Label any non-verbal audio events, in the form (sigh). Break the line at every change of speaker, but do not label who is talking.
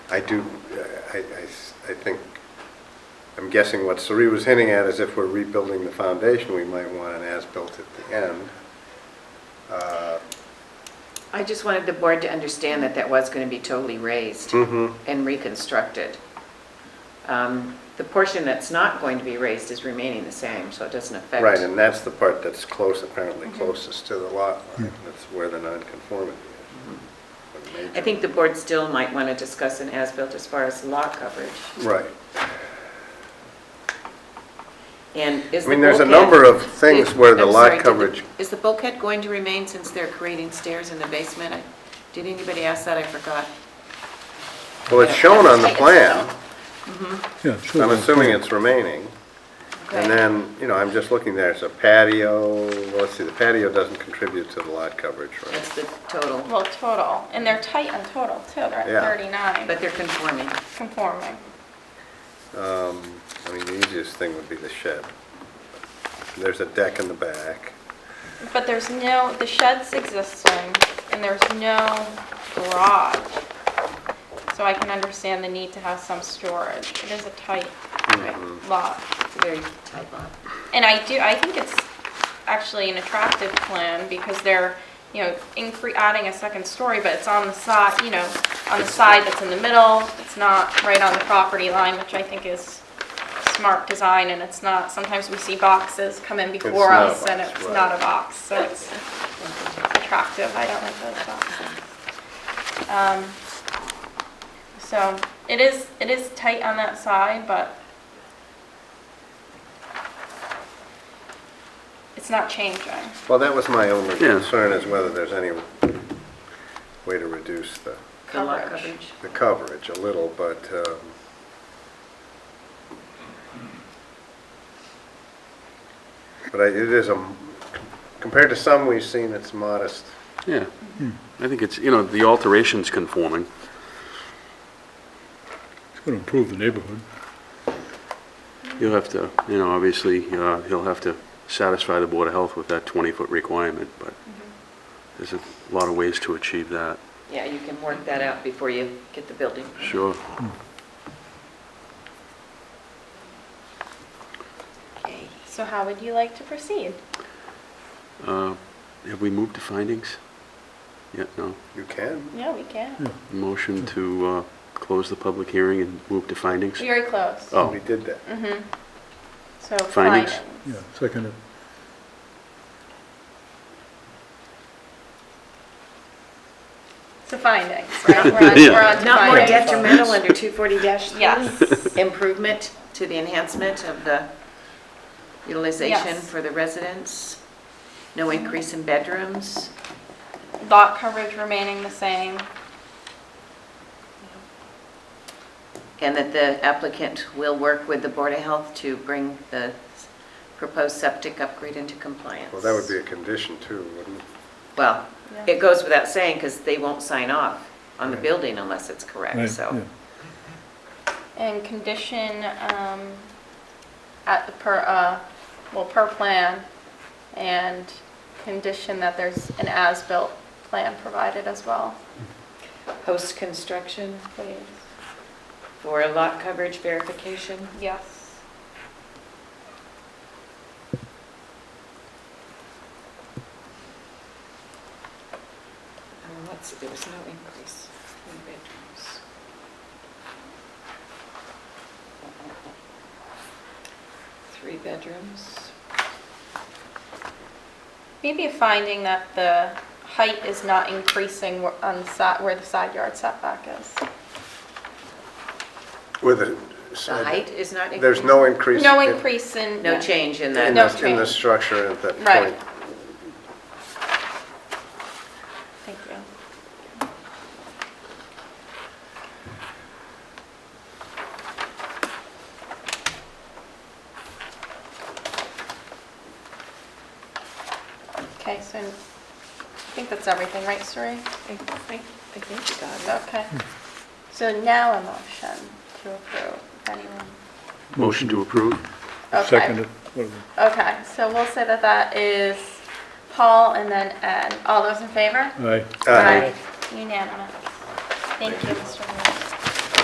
I do, I, I s- I think, I'm guessing what Sari was hinting at is if we're rebuilding the foundation, we might want an as-built at the end. Uh,
I just wanted the board to understand that that was going to be totally raised
mhm.
and reconstructed. Um, The portion that's not going to be raised is remaining the same, so it doesn't affect.
Right, and that's the part that's close, apparently closest to the lot line. That's where the nonconformity is. The
I
major-
think the board still might want to discuss an as-built as far as lot coverage.
Right.
And is
I
the bulkhead...
mean, there's a number
(laughs)
of things where the
I'm
lot
sorry, did the-
coverage-
Is the bulkhead going to remain since they're creating stairs in the basement? I- Did anybody ask that? I forgot.
Well, it's shown on the plan.
Yeah, sure.
I'm assuming it's remaining.
Okay.
And then, you know, I'm just looking there, it's a patio, well, let's see, the patio doesn't contribute to the lot coverage, right?
That's the total,
Well, total, and they're tight on total too, they're
Yeah.
at 39,
but they're conforming.
conforming.
Um, I mean, the easiest thing would be the shed. There's a deck in the back.
But there's no, the shed's existing, and there's no garage. So I can understand the need to have some storage. It is a tight
Right.
lot.
It's a very tight lot.
And I do, I think it's actually an attractive plan because they're, you know, incre, adding a second story, but it's on the side, you know, on the side that's in the middle. It's not right on the property line, which I think is smart design and it's not, sometimes we see boxes come in before
not a
us and
box,
it's
right.
not a box, so it's attractive. I don't like those boxes. Um, So it is, it is tight on that side, but it's not changing.
Well, that was my only
Yeah.
concern, is whether there's any way to reduce the,
The lot
Coverage.
coverage.
the coverage a little, but, um, but I- it is a, compared to some we've seen, it's modest.
Yeah, I think it's, you know, the alteration's conforming.
It's going to improve the neighborhood.
You'll have to, you know, obviously, uh, he'll have to satisfy the Board of Health with that 20-foot requirement, but there's a lot of ways to achieve that,
Yeah, you can work that out before you get the building.
sure.
Okay.
So how would you like to proceed?
Uh, Have we moved to findings? Yet, no?
You can.
Yeah, we can.
Motion to uh, close the public hearing and move to findings?
We are close. Mm-hmm.
Oh,
We did that.
So
Findings?
findings.
Yeah, second, it.
So findings, right? We're on-
Yeah.
We're on to
Not more
findings.
detrimental under
(laughs)
240-3?
Yes.
Improvement to the enhancement of the utilization
Yes.
for the residents? No increase in bedrooms?
Lot coverage remaining the same.
And that the applicant will work with the Board of Health to bring the proposed septic upgrade into compliance?
Well, that would be a condition too, wouldn't it?
Well,
Yeah.
it goes without saying, because they won't sign off on the
Right.
building unless it's
right,
correct,
yeah.
so.
And condition, um, at the per, uh, well, per plan, and condition that there's an as-built plan provided as well,
Post-construction
please.
for lot coverage verification?
Yes.
Um, Let's see, there was no increase in bedrooms. Three bedrooms.
Maybe a finding that the height is not increasing where- on the side, where the side yard setback is.
With a.
The height is not increased?
There's no increase.
No
in-
increase in.
No change in
In
that?
No
the, in the
change.
structure at that point.
Right. Thank you. Okay, so I think that's everything, right, Suri?
I think you got
Okay. So now a motion to approve, if anyone.
motion to approve?
Okay.
Second, it, whatever.
Okay, so we'll say that that is Paul and then Ed. All those in favor?
Uh,
aye.
Aye.
Unanimous. Thank you, Mr. Mayor.